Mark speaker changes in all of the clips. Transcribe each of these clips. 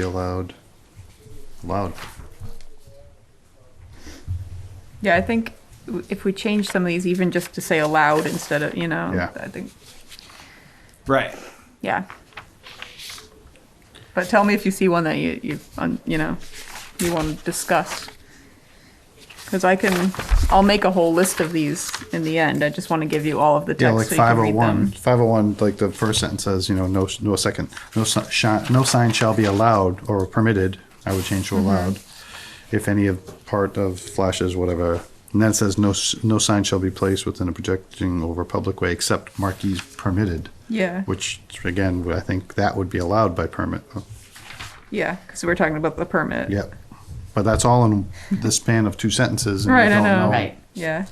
Speaker 1: be allowed. Allowed.
Speaker 2: Yeah, I think w- if we change some of these, even just to say aloud instead of, you know,
Speaker 1: Yeah.
Speaker 2: I think,
Speaker 3: Right.
Speaker 2: yeah. But tell me if you see one that you you un- you know you want to discuss, because I can I'll make a whole list of these in the end. I just want to give you all of the text
Speaker 1: Yeah, like
Speaker 2: so you can read
Speaker 1: 501.
Speaker 2: them.
Speaker 1: 501, like the first sentence says, you know, no, no second, no, si- shi- no sign shall be allowed or permitted. I would change to
Speaker 2: Mm-hmm.
Speaker 1: allowed. If any of part of flashes, whatever. And then it says, no, s- no sign shall be placed within a projecting over public way except marquees permitted,
Speaker 2: Yeah,
Speaker 1: which again, I think that would be allowed by permit. uh,
Speaker 2: yeah, because we're talking about the permit.
Speaker 1: Yep. But that's all in the span of two sentences. and we
Speaker 2: Right, I
Speaker 1: don't
Speaker 2: know.
Speaker 4: Right.
Speaker 2: Yeah.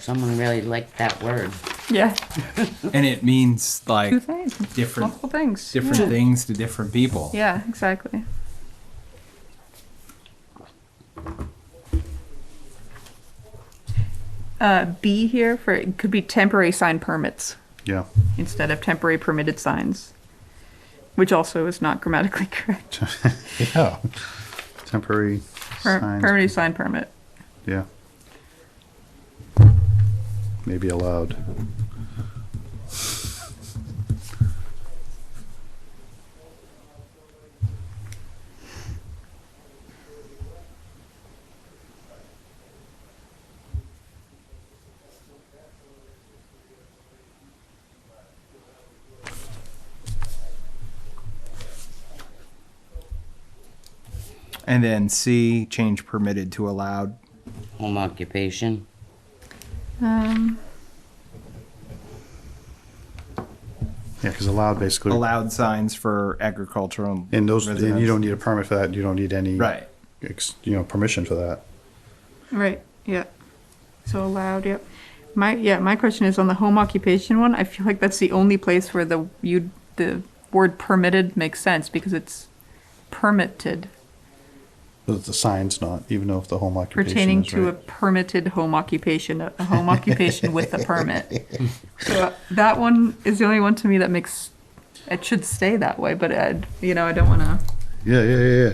Speaker 4: Someone really liked that word.
Speaker 2: Yeah.
Speaker 3: And it means
Speaker 2: Two
Speaker 3: like
Speaker 2: things.
Speaker 3: different
Speaker 2: Multiple things.
Speaker 3: different
Speaker 2: yeah.
Speaker 3: things to different people.
Speaker 2: Yeah, exactly. Uh, B here for it could be temporary sign permits
Speaker 1: Yeah.
Speaker 2: instead of temporary permitted signs, which also is not grammatically correct.
Speaker 1: Yeah. Temporary
Speaker 2: Per-
Speaker 1: signs.
Speaker 2: permanent sign permit.
Speaker 1: Yeah. Maybe allowed.
Speaker 3: And then C change permitted to allowed.
Speaker 4: Home occupation.
Speaker 2: Um,
Speaker 1: Yeah, because allowed basically.
Speaker 3: Allowed signs for agricultural
Speaker 1: And those, and you
Speaker 3: residents.
Speaker 1: don't need a permit for that. You don't need any.
Speaker 3: Right.
Speaker 1: Ex, you know, permission for that.
Speaker 2: right. Yeah. So allowed. Yep. My yeah. My question is on the home occupation one. I feel like that's the only place where the you the word permitted makes sense because it's permitted.
Speaker 1: The, the sign's not, even though if the home occupation
Speaker 2: pertaining
Speaker 1: is
Speaker 2: to a
Speaker 1: right.
Speaker 2: permitted home occupation, a a home occupation with a permit. So uh, that one is the only one to me that makes, it should stay that way, but I, you know, I don't wanna,
Speaker 1: Yeah, yeah, yeah, yeah.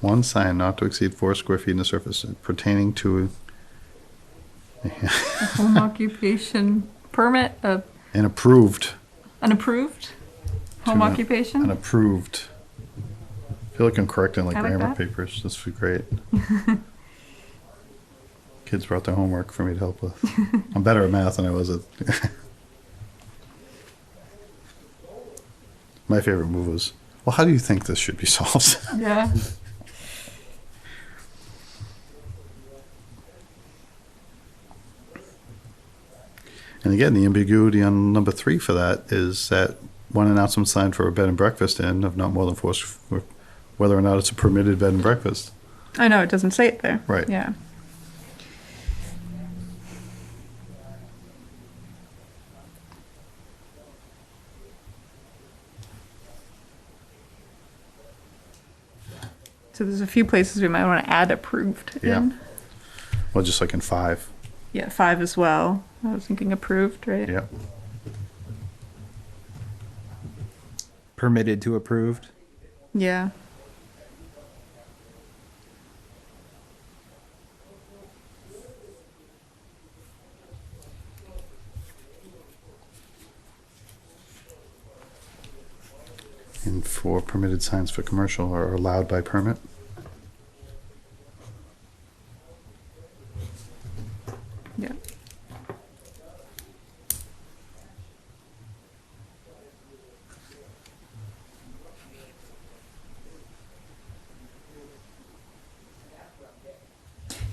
Speaker 1: One sign not to exceed four square feet in the surface pertaining to
Speaker 2: a home occupation permit, uh,
Speaker 1: an approved,
Speaker 2: an approved home
Speaker 1: Too much. an
Speaker 2: occupation?
Speaker 1: approved. I feel like I'm correcting like
Speaker 2: I like
Speaker 1: grammar
Speaker 2: that.
Speaker 1: papers. This would be great. Kids brought their homework for me to help with. I'm better at math than I was at. My favorite move was, well, how do you think this should be solved?
Speaker 2: Yeah,
Speaker 1: And again, the ambiguity on number three for that is that one announcement sign for a bed and breakfast inn of not more than four, s- whether or not it's a permitted bed and breakfast.
Speaker 2: I know, it doesn't say it there.
Speaker 1: Right.
Speaker 2: Yeah. So there's a few places we might want to add approved
Speaker 1: Yeah.
Speaker 2: in.
Speaker 1: Well, just like in five.
Speaker 2: Yeah, five as well. I was thinking approved, right?
Speaker 1: Yep.
Speaker 3: permitted to approved.
Speaker 2: Yeah.
Speaker 1: And four permitted signs for commercial are allowed by permit.
Speaker 2: Yeah.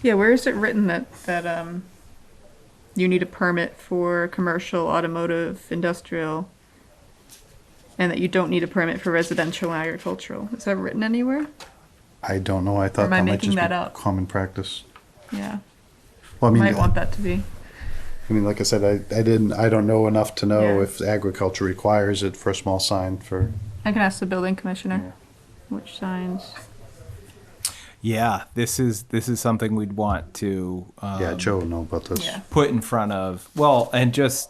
Speaker 2: Yeah, where is it written that, that, um, you need a permit for commercial, automotive, industrial? And that you don't need a permit for residential and agricultural? Is that written anywhere?
Speaker 1: I don't know. I thought
Speaker 2: am I
Speaker 1: that might
Speaker 2: making
Speaker 1: just
Speaker 2: that
Speaker 1: be
Speaker 2: up?
Speaker 1: common practice.
Speaker 2: Yeah,
Speaker 1: Well, I mean,
Speaker 2: might want that to be.
Speaker 1: I mean, like I said, I, I didn't, I don't know enough to know
Speaker 2: Yeah.
Speaker 1: if agriculture requires it for a small sign for.
Speaker 2: I can ask the building commissioner which signs.
Speaker 3: Yeah, this is this is something we'd want to um,
Speaker 1: Yeah, Joe would know about this.
Speaker 2: Yeah.
Speaker 3: put in front of well, and just